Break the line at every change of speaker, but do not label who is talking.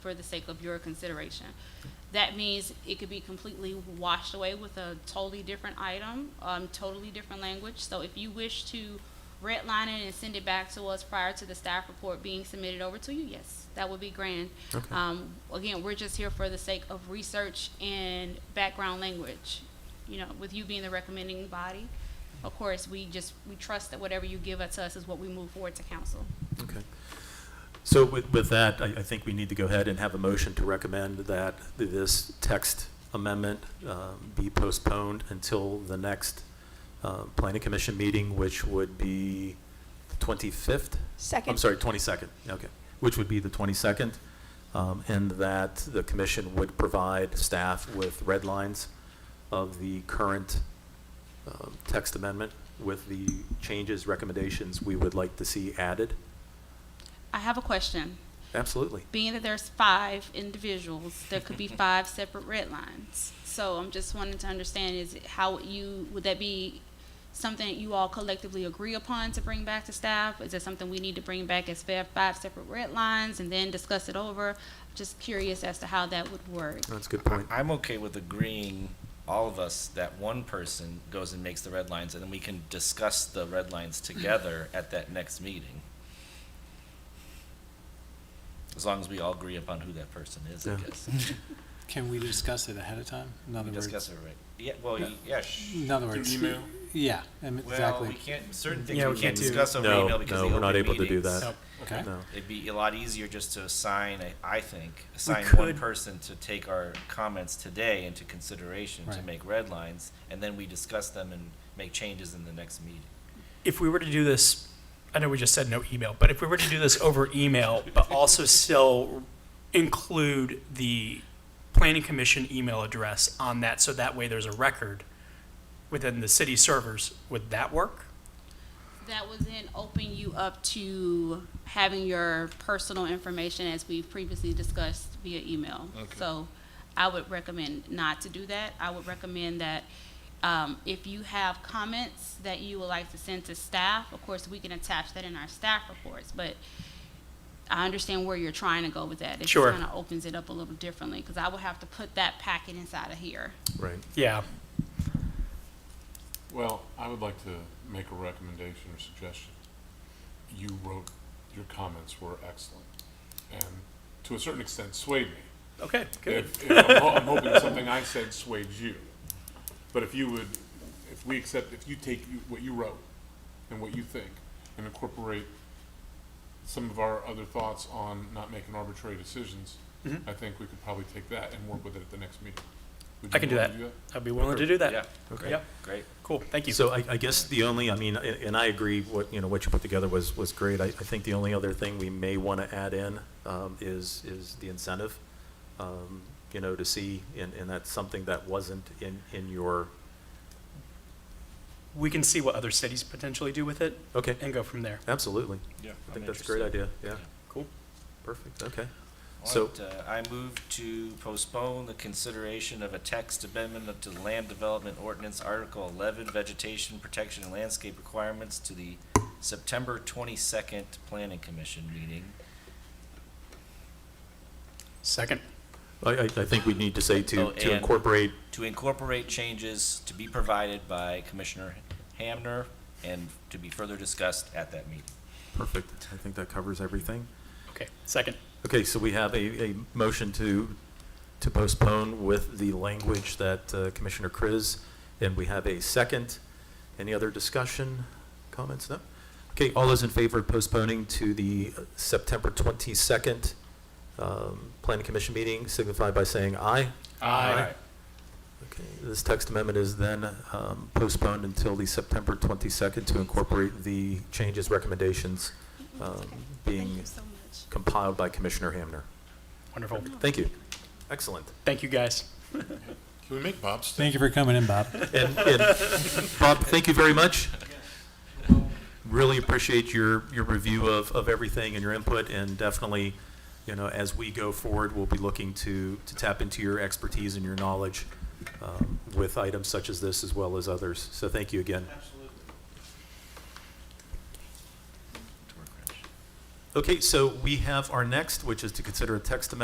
for the sake of your consideration. That means it could be completely washed away with a totally different item, um, totally different language. So if you wish to redline it and send it back to us prior to the staff report being submitted over to you, yes, that would be grand.
Okay.
Um, again, we're just here for the sake of research and background language. You know, with you being the recommending body, of course, we just, we trust that whatever you give it to us is what we move forward to council.
Okay. So with, with that, I, I think we need to go ahead and have a motion to recommend that this text amendment um, be postponed until the next uh, planning commission meeting, which would be the 25th?
Second.
I'm sorry, 22nd, okay, which would be the 22nd, um, and that the commission would provide staff with red lines of the current um, text amendment with the changes, recommendations we would like to see added.
I have a question.
Absolutely.
Being that there's five individuals, there could be five separate red lines. So I'm just wanting to understand is it how would you, would that be something that you all collectively agree upon to bring back to staff? Is that something we need to bring back as fa- five separate red lines and then discuss it over? Just curious as to how that would work.
That's a good
I-
point.
I'm okay with agreeing, all of us, that one person goes and makes the red lines, and then we can discuss the red lines together at that next meeting. As long as we all agree upon who that person is, I
Yeah.
guess.
Can we discuss it ahead of time? In other
We
words,
discuss it, right? Yeah, well, y- yeah, sh-
in other words,
email?
yeah, I mean,
well,
exactly.
we can't, certain things
Yeah,
we
we
can't
can't do-
discuss over
No,
email because
no,
of
we're
the
not
open
able to do
meetings.
that.
Nope.
okay.
No.
It'd be a lot easier just to assign, I- I think, assign one
could-
person to take our comments today into consideration to
Right.
make red lines, and then we discuss them and make changes in the next meeting.
if we were to do this, I know we just said no email, but if we were to do this over email, but also still include the planning commission email address on that, so that way there's a record within the city servers, would that work?
That would then open you up to having your personal information as we previously discussed via email. So I would recommend not to do that. I would recommend that um, if you have comments that you would like to send to staff, of course, we can attach that in our staff reports, but I understand where you're trying to go with that.
Sure.
It kind of opens it up a little differently, because I would have to put that packet inside of here.
Right.
Yeah,
Well, I would like to make a recommendation or suggestion. You wrote, your comments were excellent, and to a certain extent swayed me.
okay, good.
If, if I'm, ho- I'm hoping something I said swayed you. But if you would, if we accept, if you take you- what you wrote and what you think and incorporate some of our other thoughts on not making arbitrary decisions,
Mm-hmm.
I think we could probably take that and work with it at the next meeting. Would
I
you
can do
wanna
that. I'd be willing to do that.
Yeah,
Okay.
great,
Yep.
great.
Cool, thank you.
So I, I guess the only, I mean, a- and I agree, what, you know, what you put together was, was great. I, I think the only other thing we may want to add in um, is, is the incentive, um, you know, to see, and, and that's something that wasn't in, in your,
We can see what other cities potentially do with it
okay,
and go from there.
absolutely.
Yeah.
I think that's a great idea, yeah,
Cool.
perfect, okay. So-
All right, uh, I move to postpone the consideration of a text amendment to the Land Development Ordinance Article eleven, Vegetation Protection and Landscape Requirements to the September twenty-second Planning Commission meeting.
Second,
I, I, I think we need to say to,
Oh,
to
and-
incorporate,
to incorporate changes to be provided by Commissioner Hamner and to be further discussed at that meeting.
perfect, I think that covers everything.
okay, second,
Okay, so we have a, a motion to, to postpone with the language that uh, Commissioner Kriz, and we have a second. Any other discussion, comments? No? Okay, all those in favor of postponing to the uh, September 22nd um, Planning Commission meeting signify by saying aye.
Aye.
Okay, this text amendment is then um, postponed until the September 22nd to incorporate the changes, recommendations um,
Thank
being
you so much.
compiled by Commissioner Hamner.
wonderful.
Thank you. Excellent.
Thank you, guys.
Can we make Bob stay?
Thank you for coming in, Bob.
And, and Bob, thank you very much. Really appreciate your, your review of, of everything and your input, and definitely, you know, as we go forward, we'll be looking to, to tap into your expertise and your knowledge um, with items such as this as well as others. So thank you again. Okay, so we have our next, which is to consider a text amendment